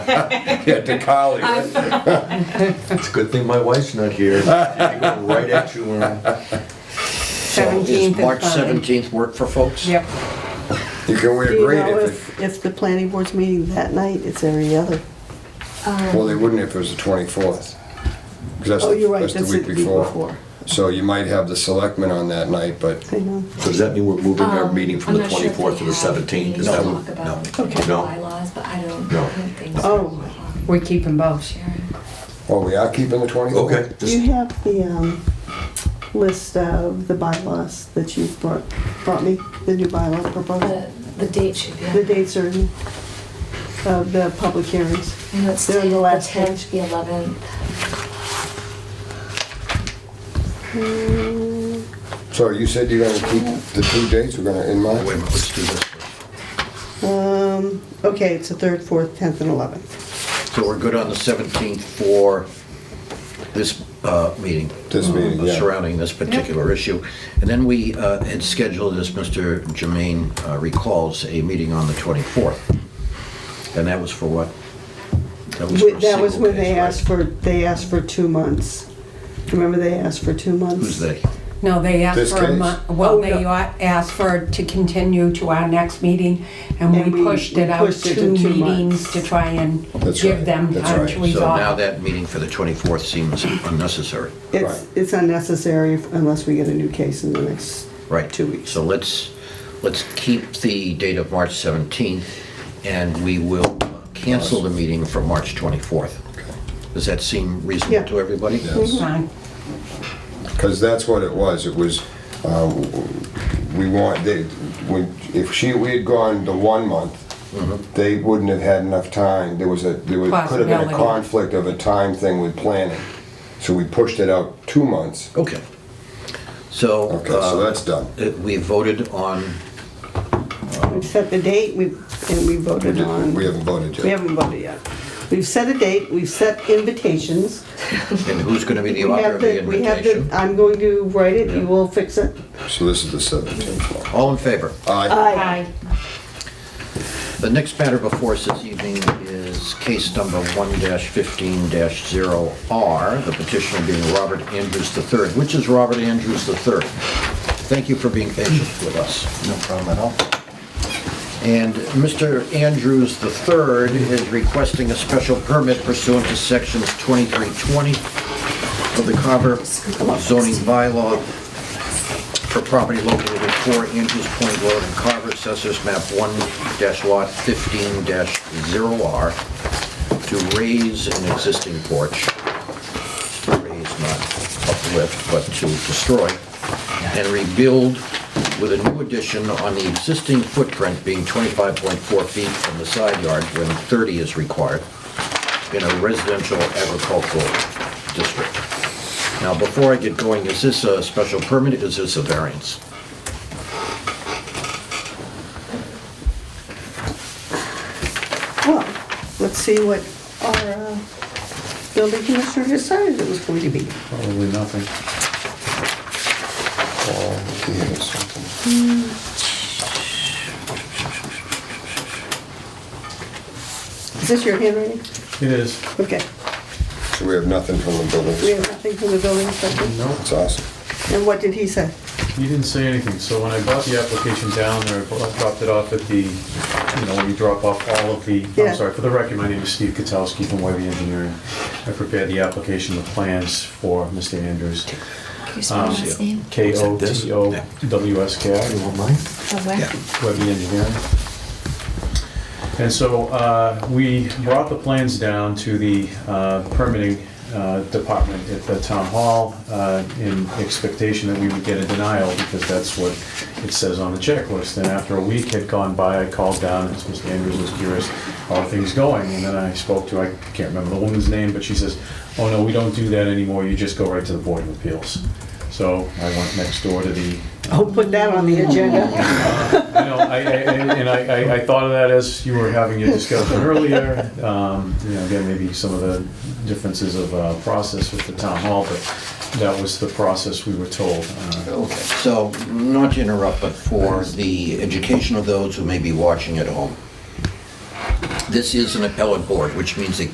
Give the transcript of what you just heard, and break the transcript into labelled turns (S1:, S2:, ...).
S1: Yeah, to college.
S2: It's a good thing my wife's not here. I go right at you, Aaron.
S3: So is
S4: Seventeenth is
S3: March
S4: fine.
S3: seventeenth work for folks?
S4: Yep.
S1: You can wear
S5: Do you
S1: green
S5: know
S1: if
S5: if, if the planning board's meeting that night, it's every other?
S1: it, well, they wouldn't if it was the 24th. 'cause that's
S5: Oh,
S1: the-
S5: you're right,
S1: That's
S5: that's
S1: the week before. So you might have the selectmen on that night, but
S5: I know.
S2: So does that mean we're moving our
S6: Um,
S2: meeting from the
S6: I'm not sure if
S2: twenty-fourth to
S6: they
S2: the
S6: have
S2: seventeenth?
S6: meetings
S2: Is that
S6: to
S2: what?
S6: talk about
S2: Okay. No.
S6: Bylaws, but I don't,
S2: No.
S6: I don't think so.
S5: Oh.
S4: We keep them both.
S6: Sharon.
S1: Oh, we are keeping the 24th?
S2: Okay.
S5: Do you have the, um, list of the bylaws that you brought, brought me, the new bylaw proposal?
S6: The, the date should be.
S5: The dates are in, of the public hearings.
S6: I know it's
S5: They're on the
S6: the
S5: last
S6: tenth, the eleventh.
S1: So you said you're gonna keep the two dates, we're gonna, in
S2: Wait a
S1: mind?
S2: minute, let's do this.
S5: Um, okay, it's the third, fourth, tenth, and eleventh.
S3: So we're good on the seventeenth for this uh, meeting?
S1: This meeting,
S3: uh,
S1: yeah.
S3: Surrounding this particular issue. And then we uh, had scheduled, as Mr. Jermaine uh, recalls, a meeting on the twenty-fourth. And that was for what? for a
S5: That was
S3: single
S5: when
S3: case,
S5: they
S3: right?
S5: asked for, they asked for two months. Remember they asked for two months?
S3: Who's they?
S4: No, they
S1: This
S4: asked for a
S1: case?
S4: month,
S5: Oh,
S4: well, they
S5: no.
S4: a- asked for to continue to our next meeting, and
S5: And we-
S4: we pushed it
S5: we
S4: out
S5: pushed it
S4: two
S5: to two
S4: meetings
S5: months.
S4: to try and
S1: That's right,
S4: give them
S1: that's
S4: time
S1: right.
S4: to
S1: So
S3: So now
S4: resolve.
S3: that meeting for the twenty-fourth seems unnecessary.
S5: It's, it's unnecessary unless we get a new case in the next
S3: Right.
S5: two weeks.
S3: So let's, let's keep the date of March 17th, and we will cancel the meeting for March 24th. Does that seem
S5: Yeah.
S3: reasonable to everybody? Mm-hmm.
S1: Yes.
S4: Fine.
S1: Because that's what it was, it was, um, we want, they, when, if she, we had gone the one month, they wouldn't have had enough time, there was a, there was, could have been a
S4: Possibility.
S1: conflict of a time thing with planning. So we pushed it out two months.
S3: Okay. So.
S1: Okay, so
S3: uh,
S1: Ah, that's done.
S3: uh, We voted on,
S5: We've set the date, we, and we
S1: We
S5: voted
S1: didn't-
S5: on,
S1: we
S5: we
S1: haven't voted yet.
S5: haven't voted yet. We've set a date, we've set invitations.
S3: and who's going to be the
S5: We
S3: author
S5: have
S3: of the
S5: the, we have the,
S3: invitation?
S5: I'm going to write it, you will fix it.
S1: So this is the 17th.
S3: All in favor?
S1: Aye.
S5: Aye.
S3: The next matter before us this evening is case number 1-15-0R, the petitioner being Robert Andrews III, which is Robert Andrews III. Thank you for being patient with us.
S1: No problem at all.
S3: And Mr. Andrews III is requesting a special permit pursuant to sections 2320 of the Carver zoning bylaw for property located at 4 Andrews Point Road in Carver, Assessors Map 1-Lot 15-0R, to raise an existing porch, raise, not uplift, but to destroy, and rebuild with a new addition on the existing footprint being 25.4 feet from the side yard when 30 is required in a residential agricultural district. Now, before I get going, is this a special permit, is this a variance?
S5: Well, let's see what our uh, building commissioner decided it was going to be.
S7: Probably nothing.
S5: Is this your handwriting?
S7: It is.
S5: Okay.
S1: So we have nothing from the
S5: We
S1: buildings.
S5: have nothing from the building inspector?
S7: No,
S1: That's awesome.
S5: And what did he say?
S7: he didn't say anything. So when I brought the application down there, I brought- dropped it off at the, you know, when you drop off all of the,
S5: Yeah.
S7: I'm sorry, for the record, my name is Steve Katsowski from Webby Engineering. I prepared the application, the plans for Mr. Andrews.
S6: Can you spell
S7: Um,
S6: his last name?
S7: K O
S3: this?
S7: T O W S K I.
S6: Oh, where?
S7: Webby Engineering. And so uh, we brought the plans down to the uh, permitting uh, department at the town hall uh, in expectation that we would get a denial because that's what it says on the checklist. And after a week had gone by, I called down, and Mr. Andrews was curious, how are things going? And then I spoke to, I can't remember the woman's name, but she says, oh no, we don't do that anymore, you just go right to the Board of Appeals. So I went next door to the
S5: I'll put that on the agenda.
S7: I know, I, I, I- and I, I- I thought of that as you were having your discussion earlier. Um, you know, again, maybe some of the differences of, uh, process with the town hall, but that was the process we were told. Uh,
S3: So, not to interrupt, but for the education of those who may be watching at home, This is an appellate board, which means it